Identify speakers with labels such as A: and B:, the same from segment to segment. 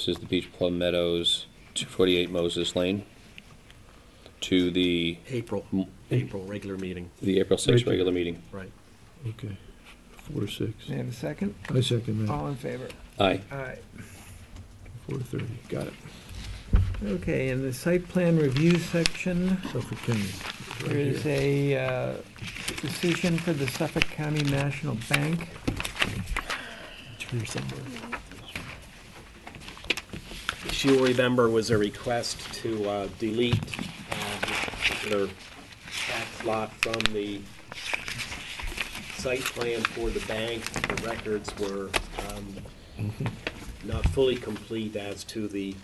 A: This is the Beach Plum Meadows, 248 Moses Lane, to the,
B: April, April, regular meeting,
A: the April 6th
C: Right.
A: regular meeting.
B: right.
C: Okay, four to six.
D: May I have a second?
C: I second that,
D: All in favor?
A: Aye.
D: Aye.
C: four to thirty, got it,
D: Okay, in the site plan review section,
C: Suffolk County. right
D: there is
C: here.
D: a uh, decision for the Suffolk County National Bank.
C: It's here somewhere.
E: If you remember, was a request to uh, delete uh, this particular tax lot from the site plan for the bank. The records were um, not fully complete as to the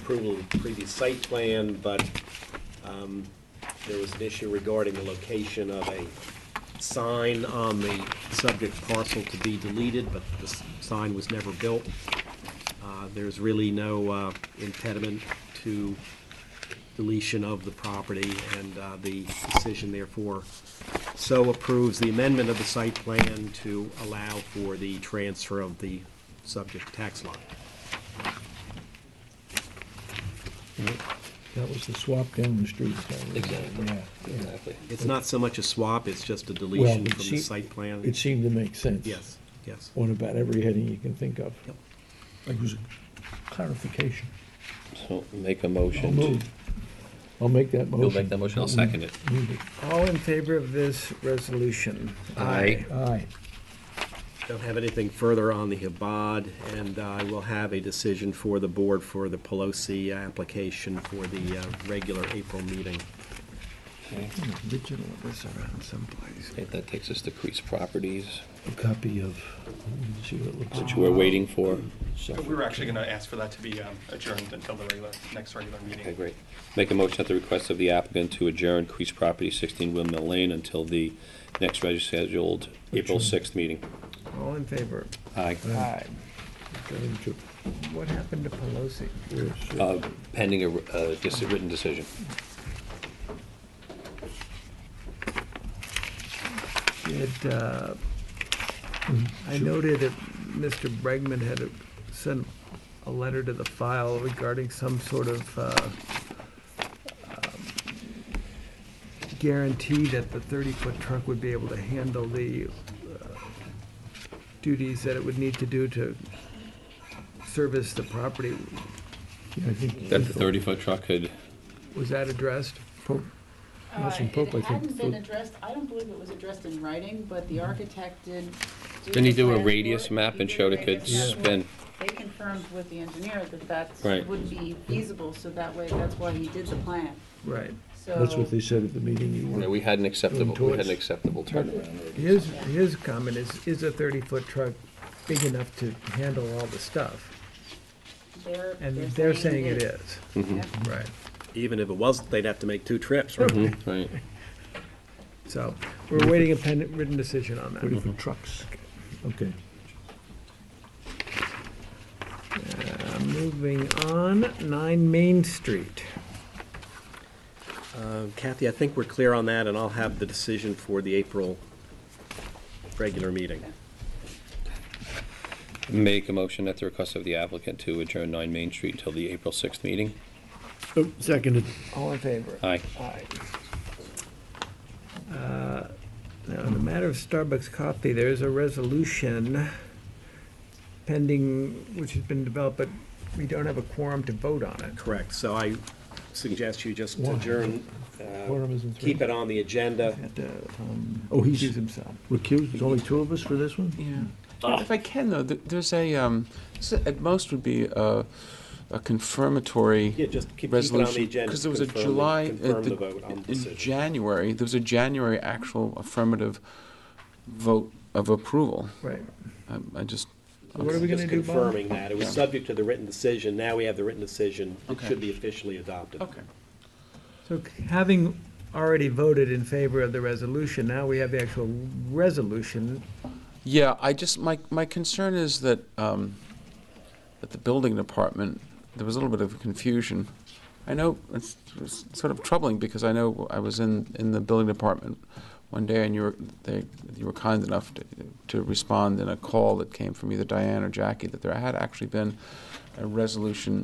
E: approval of the previous site plan, but um, there was an issue regarding the location of a sign on the subject parcel to be deleted, but the s- sign was never built. Uh, There's really no uh, impediment to deletion of the property, and uh, the decision therefore so approves the amendment of the site plan to allow for the transfer of the subject tax lot.
C: That was the swap down the street. that was-
A: Exactly.
C: Yeah, yeah.
A: Exactly.
E: It's not so much a swap, it's just a deletion
C: it
E: from the
C: seem-
E: site plan.
C: It seemed to make sense.
E: Yes, yes.
C: On about every heading you can think of.
E: Yep.
C: Like it was a clarification.
A: So make a
C: I'll
A: motion. to-
C: move. I'll make that motion.
A: You'll make that motion, I'll second it.
C: Move it.
D: All in favor of this resolution?
A: Aye.
C: Aye,
E: Don't have anything further on the Habad, and uh, I will have a decision for the board for the Pelosi application for the uh, regular April meeting.
D: Original was around someplace.
A: Okay, That takes us to Crease Properties,
C: a copy of, let me see what it looks like.
A: which we're waiting for.
C: Suffolk
F: We were actually going to ask for that to be um, adjourned until the regular, next regular meeting.
A: Okay, great. Make a motion at the request of the applicant to adjourn Crease Property, 16 Windmill Lane, until the next regularly scheduled April
C: Adjourn.
A: 6th meeting.
D: All in favor?
A: Aye.
D: Aye.
C: County Trip.
D: What happened to Pelosi?
C: Four, six.
A: Uh, Pending a uh, dis- written decision.
D: Did, uh,
C: Mm-hmm.
D: I noted that Mr. Bregman had sent a letter to the file regarding some sort of uh, um, guarantee that the 30-foot truck would be able to handle the uh, duties that it would need to do to service the property.
C: Yeah, I think-
A: That the 30-foot truck could,
D: Was that addressed?
C: Pope.
G: Uh,
C: Nelson Pope, I
G: It
C: think,
G: hadn't been
C: who-
G: addressed, I don't believe it was addressed in writing, but the
C: Mm-hmm.
G: architect did. do
A: didn't he
G: the
A: do a
G: plans for
A: radius
G: it.
A: map
G: He
A: and
G: did a
A: showed it could
G: radius map.
A: spin?
G: They confirmed with the engineer that
A: Right.
G: that would be feasible, so that way, that's why he did the plan,
D: Right.
G: so.
C: That's what they said at the meeting you
A: Yeah,
C: were.
A: we had an acceptable, we had
C: towards-
A: an acceptable turnaround.
D: His, his comment is, is a 30-foot truck big enough to handle all the stuff?
G: They're,
D: And
G: they're saying it is.
D: is.
A: Mm-hmm.
D: Right.
E: Even if it wasn't, they'd have to make two trips, right?
A: Right.
D: So we're waiting a pen, written decision on
C: Thirty
D: that.
A: Mm-hmm.
C: foot trucks. Okay.
D: Uh, Moving on, 9 Main Street.
E: Uh, Kathy, I think we're clear on that, and I'll have the decision for the April regular meeting.
A: Make a motion at the request of the applicant to adjourn 9 Main Street till the April 6th meeting.
C: Oh, Seconded.
D: All in favor?
A: Aye.
D: Aye. Uh, Now, in the matter of Starbucks coffee, there is a resolution pending, which has been developed, but we don't have a quorum to vote on it.
E: Correct, so I suggest you just
C: Why?
E: adjourn, uh,
C: Quorum is in three.
E: keep it on the agenda.
D: Had to, um,
C: Oh, he's-
D: recuse himself.
C: Recused, there's only two of us for this one?
H: Yeah.
E: Ah.
H: If I can, though, th- there's a, um, s- at most would be a, a confirmatory
E: Yeah, just keep keep it on the
H: resolution.
E: agenda.
H: Because there was a
E: confirm the-
H: July, uh,
E: Confirm the
H: the-
E: vote on the
H: in
E: decision.
H: January, there was a January actual affirmative vote of approval.
D: Right.
H: I- I just,
D: So What are we gonna
E: Just
D: do, Bob?
E: confirming that. It was
H: Yeah.
E: subject to the written decision. Now we have the written decision. It
H: Okay.
E: should be officially adopted.
H: okay.
D: So c- having already voted in favor of the resolution, now we have the actual resolution.
H: Yeah, I just, my, my concern is that, um, that the building department, there was a little bit of confusion. I know, it's, it's sort of troubling, because I know I was in, in the building department one day, and you were, they, you were kind enough to, to respond in a call that came from either Diane or Jackie, that there had actually been a resolution